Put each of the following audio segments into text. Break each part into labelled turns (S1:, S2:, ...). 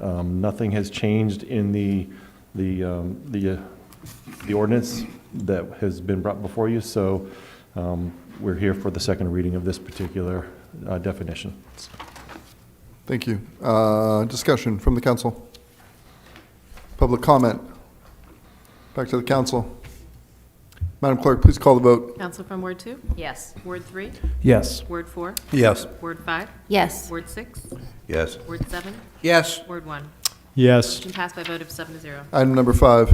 S1: Um, Nothing has changed in the, the, um, the, uh, the ordinance that has been brought before you, so um, we're here for the second reading of this particular uh, definition.
S2: Thank you. Uh, Discussion from the council. Public comment. Back to the council. Madam Clerk, please call the vote.
S3: Counsel from Ward two? Yes. Ward three?
S4: Yes.
S3: Word four?
S5: Yes.
S3: Word five?
S6: Yes.
S3: Word six?
S5: Yes.
S3: Word seven?
S5: Yes.
S3: Word one?
S4: Yes.
S3: Motion passed by a vote of seven to zero.
S2: Item number five.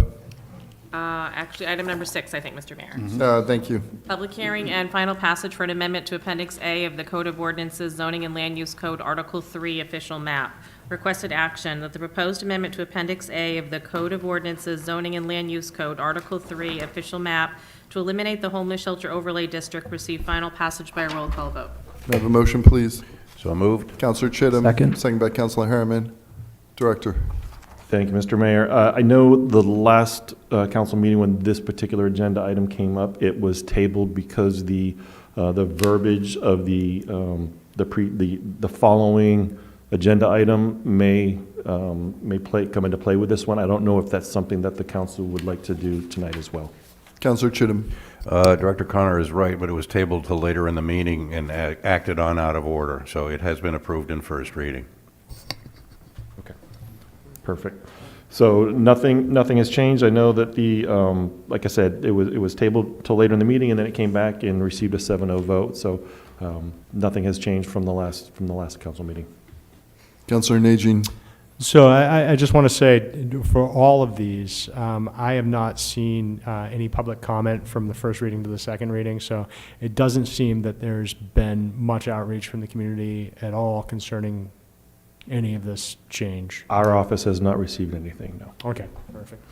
S3: Uh, Actually, item number six, I think, Mr. Mayor.
S2: Uh, Thank you.
S3: Public hearing and final passage for an amendment to Appendix A of the Code of Ordinances Zoning and Land Use Code, Article 3, Official Map. Requested action that the proposed amendment to Appendix A of the Code of Ordinances Zoning and Land Use Code, Article 3, Official Map, to eliminate the homeless shelter overlay district receive final passage by a roll call vote.
S2: May I have a motion, please?
S5: So moved?
S2: Counselor Chittum.
S4: Second.
S2: Second by Counselor Harriman. Director.
S1: Thank you, Mr. Mayor. Uh, I know the last uh, council meeting, when this particular agenda item came up, it was tabled because the, uh, the verbiage of the, um, the pre, the, the following agenda item may, um, may play, come into play with this one. I don't know if that's something that the council would like to do tonight as well.
S2: Counselor Chittum.
S5: Uh, Director Connor is right, but it was tabled till later in the meeting and a- acted on out of order, so it has been approved in first reading.
S1: Okay, perfect. So nothing, nothing has changed. I know that the, um, like I said, it was, it was tabled till later in the meeting, and then it came back and received a 7-0 vote, so um, nothing has changed from the last, from the last council meeting.
S2: Counselor Najin.
S4: So I, I- I just want to say, for all of these, um, I have not seen uh, any public comment from the first reading to the second reading, so it doesn't seem that there's been much outreach from the community at all concerning any of this change.
S1: Our office has not received anything, no.
S4: Okay, perfect.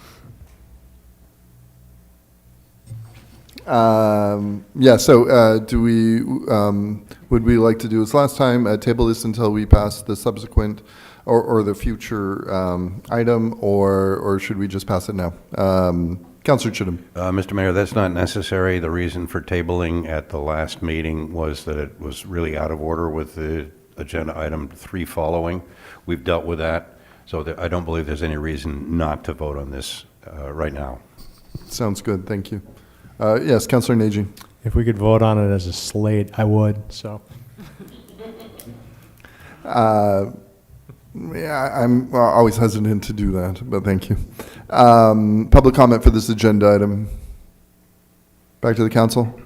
S2: Um, yeah, so uh, do we, um, would we like to do this last time, uh, table this until we pass the subsequent or, or the future um, item, or, or should we just pass it now? Um, Counselor Chittum,
S5: Uh, Mr. Mayor, that's not necessary. The reason for tabling at the last meeting was that it was really out of order with the agenda item three following. We've dealt with that, so that- I don't believe there's any reason not to vote on this uh, right now.
S2: sounds good, thank you. Uh, yes, Counselor Najin.
S4: If we could vote on it as a slate, I would, so.
S2: Uh, yeah, I'm uh, always hesitant to do that, but thank you. Um, public comment for this agenda item. Back to the council.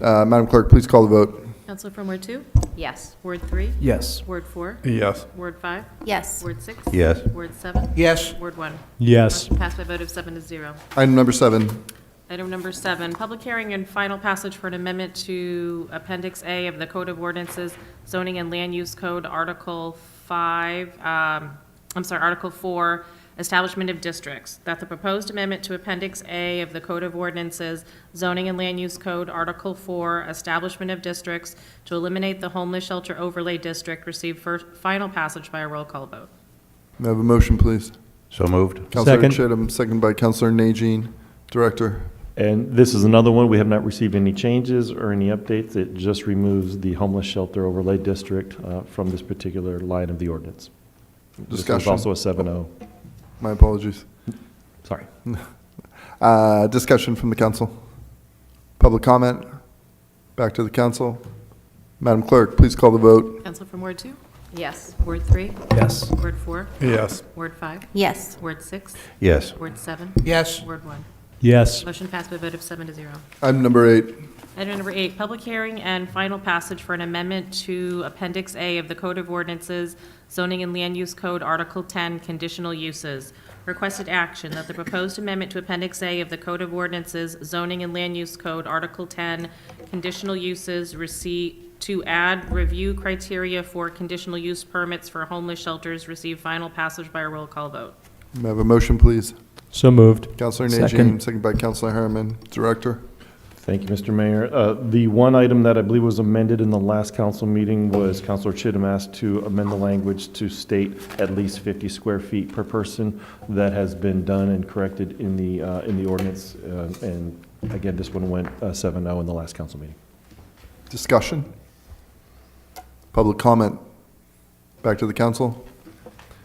S2: Uh, Madam Clerk, please call the vote.
S3: Counsel from Ward two?
S6: Yes.
S3: Word three?
S4: Yes.
S3: Word four?
S5: Yes.
S3: Word five?
S6: Yes.
S3: Word six?
S5: Yes.
S3: Word seven?
S5: Yes.
S3: Word one?
S4: Yes.
S3: Motion passed by a vote of seven to zero.
S2: Item number seven.
S3: Item number seven, public hearing and final passage for an amendment to Appendix A of the Code of Ordinances, Zoning and Land Use Code, Article 5, um, I'm sorry, Article 4, Establishment of Districts, that the proposed amendment to Appendix A of the Code of Ordinances, Zoning and Land Use Code, Article 4, Establishment of Districts, to eliminate the homeless shelter overlay district, receive first, final passage by a roll call vote.
S2: May I have a motion, please?
S5: So moved?
S2: Counselor
S4: Second.
S2: Chittum, second by Counselor Najin. Director,
S1: And this is another one, we have not received any changes or any updates. It just removes the homeless shelter overlay district uh, from this particular line of the ordinance. This is
S2: Discussion.
S1: also a 7-0,
S2: my apologies.
S1: sorry.
S2: Uh, Discussion from the council. Public comment. Back to the council. Madam Clerk, please call the vote.
S3: Counsel from Ward two?
S6: Yes.
S3: Word three?
S4: Yes.
S3: Word four?
S2: Yes.
S3: Word five?
S6: Yes.
S3: Word six?
S5: Yes.
S3: Word seven?
S5: Yes.
S3: Word one?
S4: Yes.
S3: Motion passed by a vote of seven to zero.
S2: Item number eight.
S3: Item number eight, public hearing and final passage for an amendment to Appendix A of the Code of Ordinances, Zoning and Land Use Code, Article 10, Conditional Uses. Requested action that the proposed amendment to Appendix A of the Code of Ordinances, Zoning and Land Use Code, Article 10, Conditional Uses, receive, to add review criteria for conditional use permits for homeless shelters, receive final passage by a roll call vote.
S2: May I have a motion, please?
S4: So moved.
S2: Counselor Najin,
S4: Second.
S2: second by Counselor Harriman. Director,
S1: Thank you, Mr. Mayor. Uh, The one item that I believe was amended in the last council meeting was Councilor Chittum asked to amend the language to state at least 50 square feet per person. That has been done and corrected in the, uh, in the ordinance. uh, And again, this one went uh, 7-0 in the last council meeting.
S2: discussion. Public comment. Back to the council.